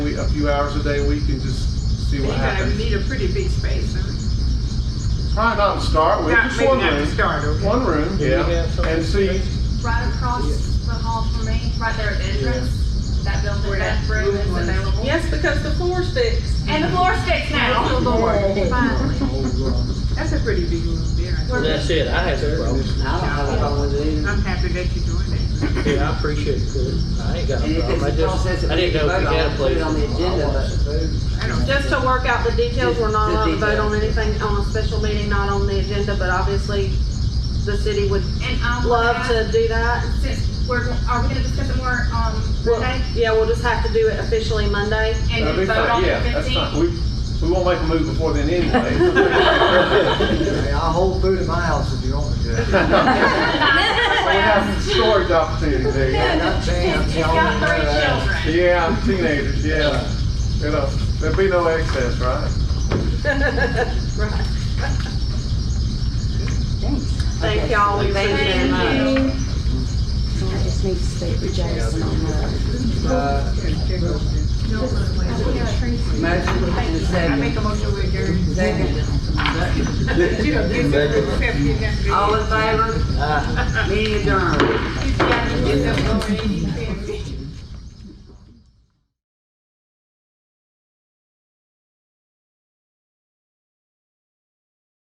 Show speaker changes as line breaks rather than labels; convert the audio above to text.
a few hours a day a week and just see
You
what
guys
happens.
need a pretty big space, huh?
Probably not to start with,
Not-
just
maybe
one
not to
room,
start, okay?
one room, yeah, and see,
Right across the hall from me, right there at the entrance, that building,
Where
that
that
room is
room was.
available.
Yes, because the floor sticks.
And the floor sticks now. Finally.
That's a pretty big room there. I
Well,
think.
That's it, I have no problem.
I don't have a problem with it either.
I'm happy that you're doing that.
Yeah, I appreciate it, Chris. I ain't got
And
a
if
problem, I
it's a process
just, I
that we
didn't
can
know if
vote
we had
on,
a
put it on
place.
the agenda, but
I don't.
Just to work out the details, we're not
The
allowed to vote on
details.
anything on a special meeting, not on the agenda, but obviously the city would
And I will
love
ask,
to do that.
since we're, are we gonna discuss it more, um,
Well,
Monday?
yeah, we'll just have to do it officially Monday.
And
that'd be
then vote on
fine, yeah,
the
that's fine.
fifteenth?
We, we won't make a move before then anyway.
Hey, I'll hold food at my house if you want me
We
to.
have some storage opportunities there.
Yeah,
yeah.
not saying, I'm
He's
telling
got
you uh, that.
three children.
Yeah, teenagers, yeah, you know, there'd be no excess, right?
Right. Thank y'all, we made it in.
Thank you.
So I just need to speak to Jason on that.
Uh, Motion
I
and a
make
second.
a motion with your.
Second.
You don't give it to accept you got to-
All in favor? Meeting adjourned.
You got to get up on it, you can't be.